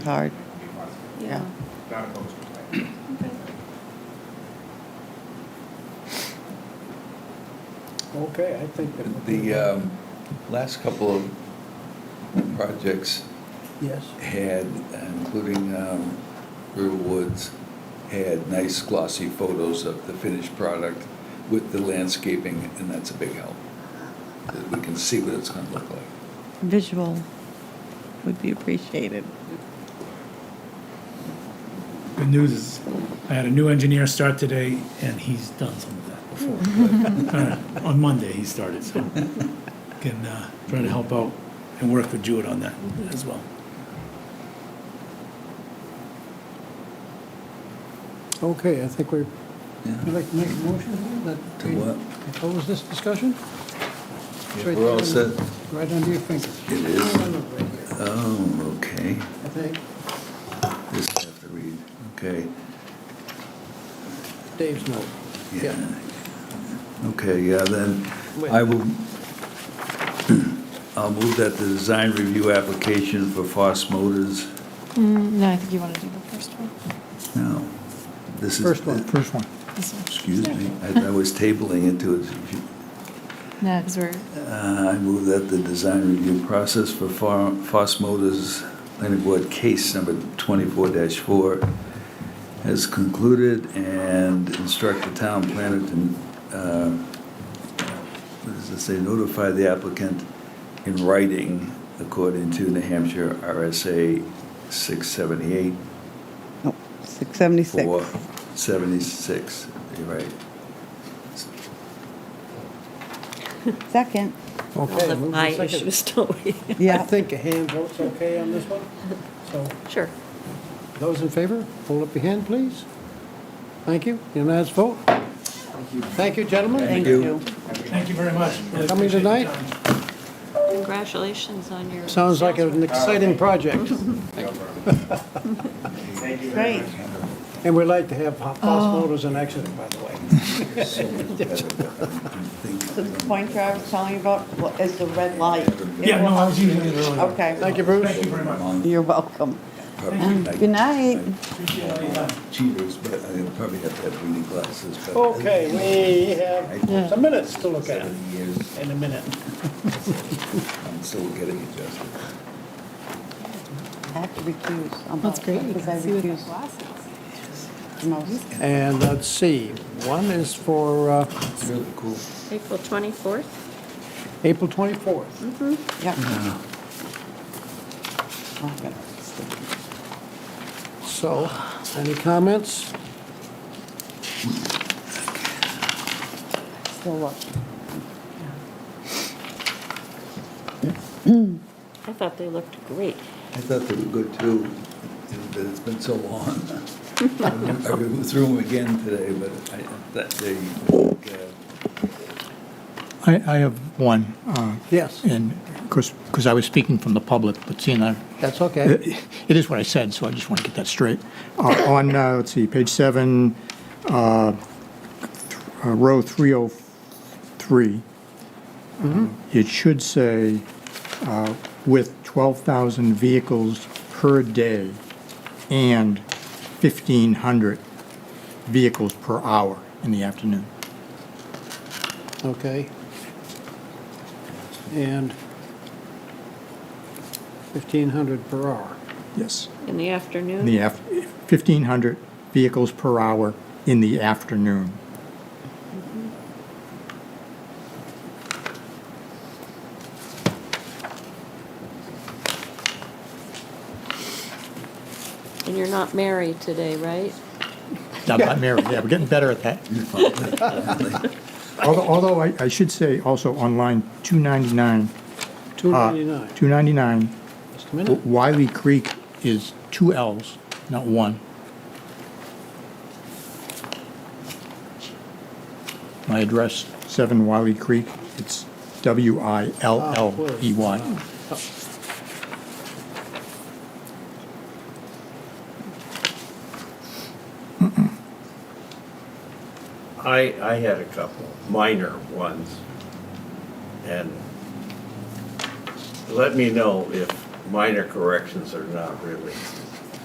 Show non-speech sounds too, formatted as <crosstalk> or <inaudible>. Hard, yeah. Yeah. Not opposed to it. Okay, I think that. The um, last couple of projects Yes. had, including um, River Woods, had nice glossy photos of the finished product with the landscaping, and that's a big help. That We can see what it's going to look like. Visual would be appreciated. Good news is, I had a new engineer start today, and he's done some of that before. Uh, On Monday, he started, so can uh, try to help out and work with Jewett on that as well. Okay, I think we're, you'd like to make a motion that To we what? close this discussion? It's right We're all there, set. Right under your fingers. It is. Oh, okay. I think This I have to read. Okay. Dave's note. Yeah. Okay, yeah, then I will, <clears throat> I'll move that the design review application for Foss Motors, Mm, No, I think you want to do the first one. no, this is. First one. First one. This one. Excuse me, I I was tabling it to, No, because we're, uh, I move that the design review process for Fo- Foss Motors planning board case number 24-4 has concluded and instruct the town planner to, uh, what does it say, notify the applicant in writing according to New Hampshire RSA Oh, 678 Nope, 676. Four, seventy-six, you're right. Second, Okay. All move to the eye second. issues, don't we? I yeah. think a hand vote's okay on this one. So Sure. those in favor, hold up your hand, please. Thank you. Unanimous vote. Thank you, gentlemen. Thank you. Thank you very much. Really Coming appreciate your tonight? time. Congratulations on your. Sounds like sales an exciting project, Thank you very Great. much. and we'd like to have Foss Motors in Exeter, by the way. So the pointer I was telling you about well, is the red light. Yeah, no, I was using it earlier. Okay. Thank you, Bruce. Thank you very much. You're welcome. Good Good night. Appreciate all your time. Cheaters, but I'll probably have to have reading glasses. but- Okay, we have some minutes to look at Seven years, in a minute. I'm still getting adjusted. I have to recuse. I'm That's out, great. You Because can I see with recuse from most. And let's see, one is for uh, It's really cool. April 24th. April 24th. Yep. I'm gonna stick it. So, any comments? Still up. I thought they looked great. I thought they were good too, but it's been so long. <laughs> I go through them again today, but I, that they, uh, I, I have one, uh, Yes, and of course, because I was speaking from the public, but seeing I, that's okay. it is what I said, so I just want to get that straight. Uh-huh. Uh, On, uh, let's see, page seven, uh, uh, row 303, uh, it should say, uh, with 12,000 vehicles per day and 1,500 vehicles per hour in the afternoon. Okay. And 1,500 per hour. Yes. In the afternoon? in the af, 1,500 vehicles per hour in the afternoon. And you're not married today, right? Now, not married, yeah, we're getting better at that. <laughs> Although, although I, I should say also on line 299. uh, 299, 299, just a minute. Wiley Creek is two Ls, not one. My address, 7 Wiley Creek, it's W-I-L-L-E-Y. I, I had a couple minor ones. And let me know if minor corrections are not really